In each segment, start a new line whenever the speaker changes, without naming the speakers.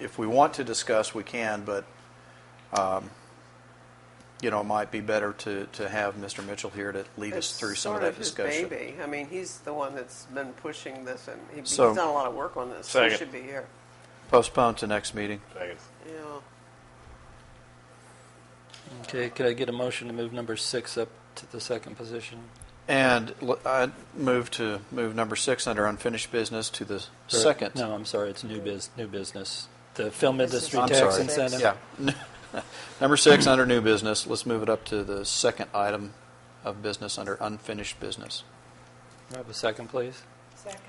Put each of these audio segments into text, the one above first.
if we want to discuss, we can, but, um, you know, it might be better to, to have Mr. Mitchell here to lead us through some of that
It's
discussion.
sort of his baby. I mean, he's the one that's been pushing this, and he- he's
So-
done a lot of work on this. He
Second.
should be here.
Postpone to next meeting.
Second.
Yeah.
Okay, could I get a motion to move number six up to the second position?
And l- I move to, move number six under unfinished business to the
Or-
second.
No, I'm sorry, it's new biz, new business. The film
This is
industry
I'm
tax
sorry.
incentive.
Yeah. Number six, under new business, let's move it up to the second item of business under unfinished business.
Do I Have a second, please.
Second.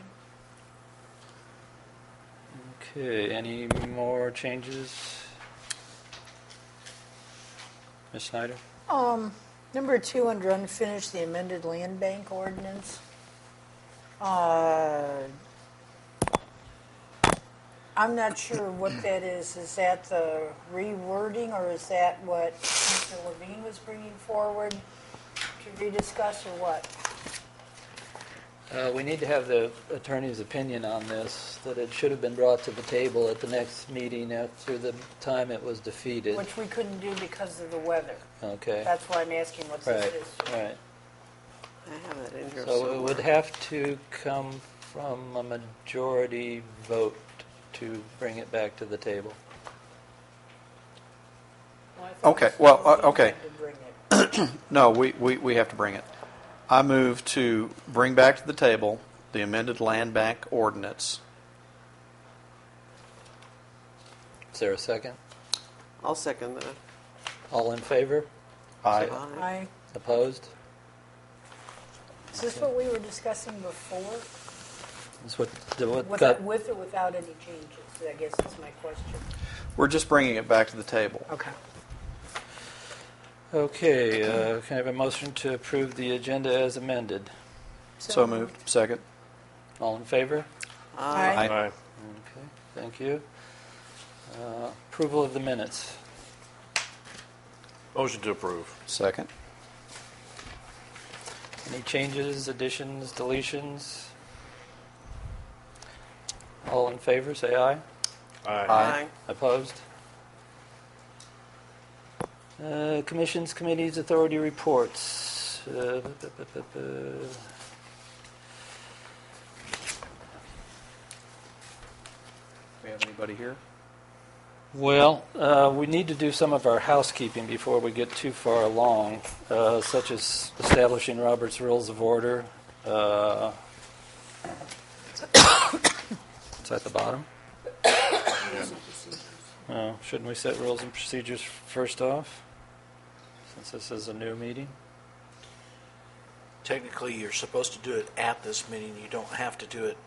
Okay, any more changes? Ms. Snyder?
Um, number two, under unfinished, the amended land bank ordinance. Uh, I'm not sure what that is. Is that the rewording, or is that what Mr. Levine was bringing forward to rediscuss, or what?
Uh, We need to have the attorney's opinion on this, that it should have been brought to the table at the next meeting after the time it was defeated.
Which we couldn't do because of the weather.
Okay,
That's why I'm asking what
right,
this is.
right.
I have that in here
So it would
somewhere.
have to come from a majority vote to bring it back to the table.
I thought
Okay,
Mr.
well, uh,
Levine
okay.
had to bring it.
No, we, we, we have to bring it. I move to bring back to the table the amended land bank ordinance.
Is there a second?
I'll second that.
All in favor?
I,
Aye.
Aye.
Opposed?
Is this what we were discussing before?
That's what, the- what
With,
got,
with or without any changes, I guess is my question.
we're just bringing it back to the table.
Okay.
okay, uh, can I have a motion to approve the agenda as amended?
So moved. Second.
All in favor?
Aye.
Aye.
Aye.
Okay, thank you. Uh, Approval of the minutes.
Motion to approve.
Second.
Any changes, additions, deletions? All in favor, say aye.
Aye.
Aye.
Opposed? Uh, Commissions, committees, authority reports. Uh, bu- bu- bu- bu- bu.
we have anybody here?
Well, uh, we need to do some of our housekeeping before we get too far along, uh, such as establishing Robert's Rules of Order. uh, It's at the bottom. Oh, Shouldn't we set rules and procedures first off, since this is a new meeting?
Technically, you're supposed to do it at this meeting. You don't have to do it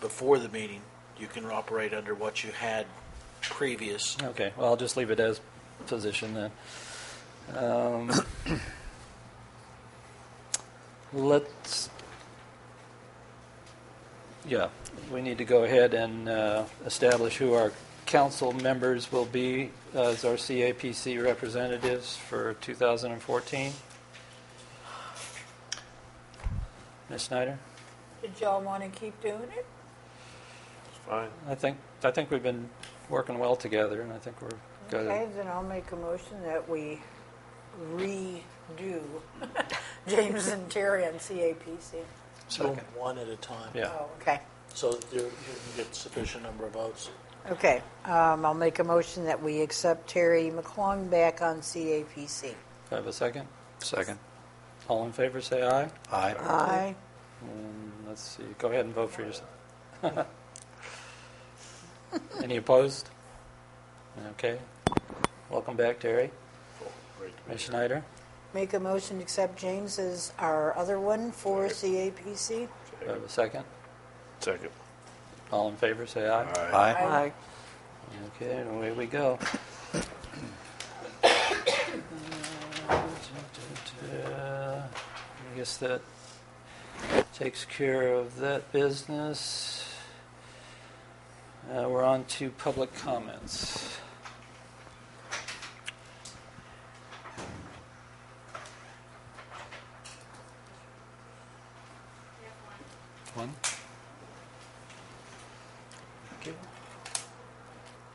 before the meeting. You can operate under what you had previous.
Okay, well, I'll just leave it as position then. Um, Let's, yeah, we need to go ahead and uh, establish who our council members will be as our CAPC representatives for 2014. Ms. Snyder?
Did y'all want to keep doing it?
It's fine.
I think, I think we've been working well together, and I think we're good.
Okay, then I'll make a motion that we redo James and Terry on CAPC.
Second.
One at a time.
Yeah.
Oh, okay.
So that you you can get sufficient number of votes.
Okay, um, I'll make a motion that we accept Terry McClung back on CAPC.
Do I have a second?
Second.
All in favor, say aye.
Aye.
Aye.
And let's see, go ahead and vote for yourself. Any opposed? Okay. Welcome back, Terry.
Great to be
Ms.
here.
Schneider?
Make a motion to accept James as our other one for CAPC.
Do I have a second?
Second.
All in favor, say aye.
Aye.
Aye.
Okay, and away we go. I guess that takes care of that business. Uh, We're on to public comments.